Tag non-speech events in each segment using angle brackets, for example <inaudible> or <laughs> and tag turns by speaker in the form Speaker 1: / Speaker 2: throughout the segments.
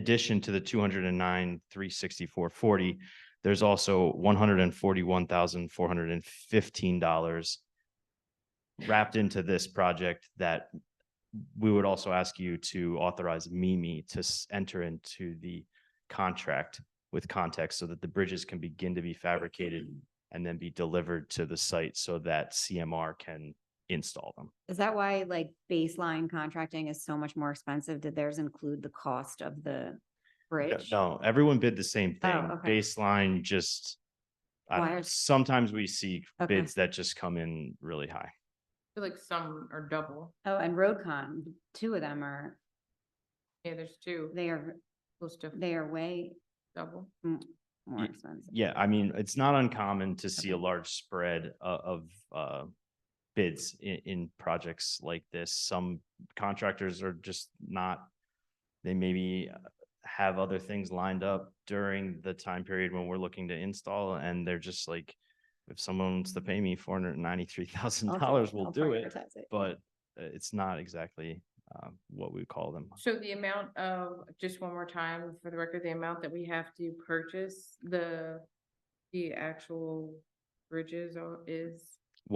Speaker 1: addition to the two hundred and nine, three sixty-four, forty, there's also one hundred and forty-one thousand, four hundred and fifteen dollars wrapped into this project that we would also ask you to authorize Mimi to s- enter into the contract with context so that the bridges can begin to be fabricated and then be delivered to the site so that CMR can install them.
Speaker 2: Is that why like baseline contracting is so much more expensive? Did theirs include the cost of the bridge?
Speaker 1: No, everyone bid the same thing.
Speaker 2: Oh, okay.
Speaker 1: Baseline just. I don't know.
Speaker 2: Why are-
Speaker 1: Sometimes we see
Speaker 2: Okay.
Speaker 1: bids that just come in really high.
Speaker 3: feel like some are double.
Speaker 2: Oh, and RoadCon, two of them are,
Speaker 3: Yeah, there's two,
Speaker 2: they are,
Speaker 3: close to
Speaker 2: they are way
Speaker 3: double.
Speaker 2: more
Speaker 1: Ye-
Speaker 2: expensive.
Speaker 1: Yeah, I mean, it's not uncommon to see a large spread o- of uh. Bids in in projects like this. Some contractors are just not. They maybe uh, have other things lined up during the time period when we're looking to install and they're just like. If someone wants to pay me four hundred and ninety-three thousand
Speaker 2: I'll
Speaker 1: dollars,
Speaker 2: prior-
Speaker 1: we'll
Speaker 2: I'll
Speaker 1: do it.
Speaker 2: prioritize it.
Speaker 1: but uh, it's not exactly um, what we call them.
Speaker 3: So the amount of, just one more time for the record, the amount that we have to purchase the, the actual bridges are- is,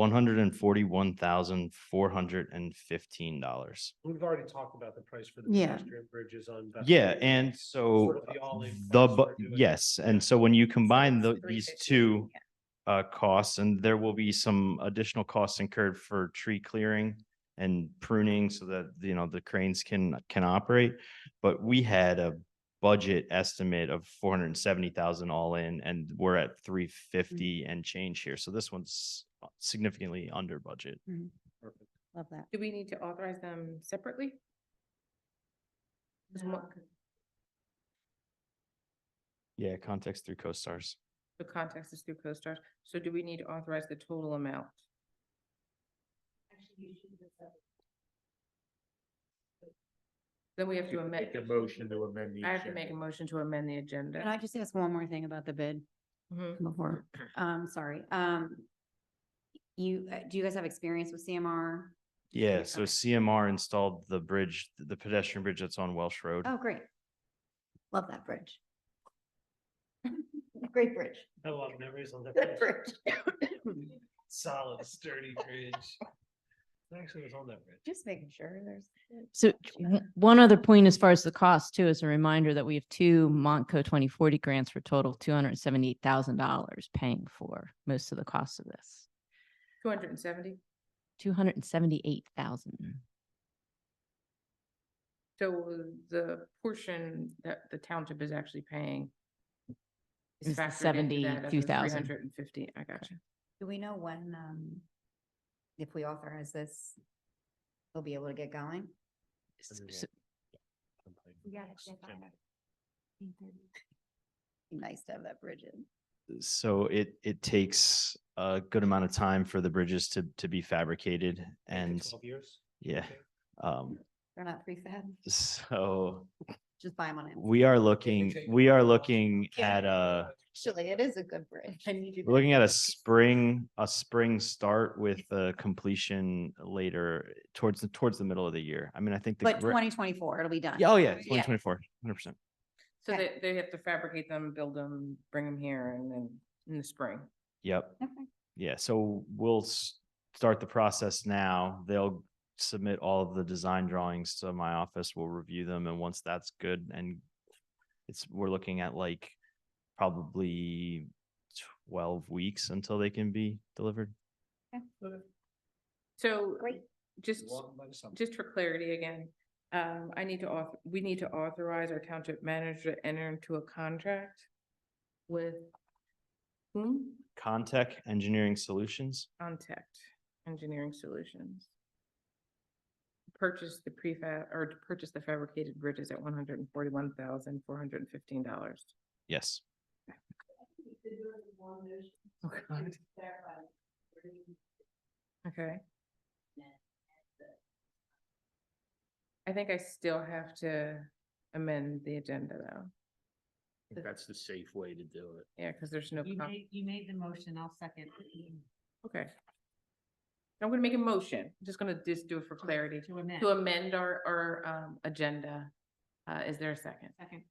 Speaker 1: One hundred and forty-one thousand, four hundred and fifteen dollars.
Speaker 4: We've already talked about the price for the
Speaker 2: Yeah.
Speaker 4: pedestrian bridges on. Bethel
Speaker 1: Yeah,
Speaker 4: Road.
Speaker 1: and so
Speaker 4: Sort of the all-in
Speaker 1: the,
Speaker 4: cost
Speaker 1: bu-
Speaker 4: we're doing.
Speaker 1: yes, and so when you combine the,
Speaker 3: it's
Speaker 1: these
Speaker 3: 350,
Speaker 1: two
Speaker 3: yeah.
Speaker 1: uh, costs, and there will be some additional costs incurred for tree clearing and pruning so that, you know, the cranes can, can operate. But we had a budget estimate of four hundred and seventy thousand all in, and we're at three fifty and change here. So this one's significantly under budget.
Speaker 4: Perfect.
Speaker 2: Love that.
Speaker 3: do we need to authorize them separately? There's one-
Speaker 2: Uh,
Speaker 1: Yeah, context through co-stars.
Speaker 3: The context is through CoStar, so do we need to authorize the total amount? Then we have to amend.
Speaker 5: Make a motion to amend the.
Speaker 3: I have to make a
Speaker 5: agenda.
Speaker 3: motion to amend the
Speaker 2: Can I
Speaker 3: agenda.
Speaker 2: just ask one more thing about the bid
Speaker 3: Mhm.
Speaker 1: <clears throat>
Speaker 2: before, um, sorry, um. You, uh, do you guys have experience with CMR?
Speaker 1: Yeah, so
Speaker 2: okay.
Speaker 1: CMR installed the bridge, the pedestrian bridge that's on Welsh Road.
Speaker 2: Oh, great. Love that bridge. <laughs> Great bridge.
Speaker 4: Have a lot of memories on that.
Speaker 2: Good
Speaker 4: bridge.
Speaker 2: bridge.
Speaker 4: <laughs> Solid, sturdy bridge. I Actually, was on that bridge.
Speaker 2: Just making sure there's.
Speaker 6: So w- one other point as far as the cost too, is a reminder that we have two Monco twenty forty grants for a total two hundred and seventy-eight thousand dollars paying for most of the cost of this.
Speaker 3: Two hundred and seventy,
Speaker 6: Two hundred and seventy-eight thousand.
Speaker 3: so the portion that the township is actually paying.
Speaker 6: Is
Speaker 3: is
Speaker 6: the
Speaker 3: factored into that of the
Speaker 6: 72,000.
Speaker 3: 350. I got you.
Speaker 2: Do we know when, um, if we authorize this, we'll be able to get going? Be Nice to have that bridge in.
Speaker 1: So it, it takes a good amount of time for the bridges to, to be fabricated
Speaker 4: Eight to
Speaker 1: and,
Speaker 4: Twelve years.
Speaker 1: yeah.
Speaker 4: Okay.
Speaker 1: Um,
Speaker 2: They're not prefab,
Speaker 1: so
Speaker 2: just buy them on it.
Speaker 1: we are looking,
Speaker 4: take
Speaker 1: we are
Speaker 4: off.
Speaker 1: looking
Speaker 2: Yeah.
Speaker 1: at a,
Speaker 2: Actually, it is a good bridge. <laughs>
Speaker 1: we're looking at a spring, a spring start with a completion later towards the, towards the middle of the year. I mean, I think. the
Speaker 2: But
Speaker 1: gra-
Speaker 2: twenty twenty-four, it'll be done.
Speaker 1: Yeah, Oh, yeah, twenty twenty-four, hundred percent.
Speaker 3: So they,
Speaker 2: Okay.
Speaker 3: they have to fabricate them, build them, bring them here and then in the spring.
Speaker 1: Yep.
Speaker 2: Okay.
Speaker 1: Yeah, so we'll s- start the process now. They'll submit all of the design drawings to my office. We'll review them and once that's good and it's, we're looking at like probably twelve weeks until they can be delivered.
Speaker 3: So
Speaker 2: Great.
Speaker 3: just,
Speaker 4: Walking by the summer.
Speaker 3: just for clarity again, um, I need to auth, we need to authorize our township manager to enter into a contract with whom?
Speaker 1: Contech Engineering Solutions.
Speaker 3: Contact Engineering Solutions. Purchase the prefab, or to purchase the fabricated bridges at one hundred and forty-one thousand, four hundred and fifteen dollars.
Speaker 1: Yes.
Speaker 3: Okay. I think I still have to amend the agenda though,
Speaker 5: I think That's the safe way to do it.
Speaker 3: yeah, because there's no.
Speaker 7: You
Speaker 3: con-
Speaker 7: made, you made the motion, I'll second.
Speaker 3: Okay. I'm gonna make a motion, I'm just gonna just do it for clarity,
Speaker 7: To amend.
Speaker 3: to amend our, our, um, agenda.
Speaker 8: Uh, is there a second?
Speaker 3: Second.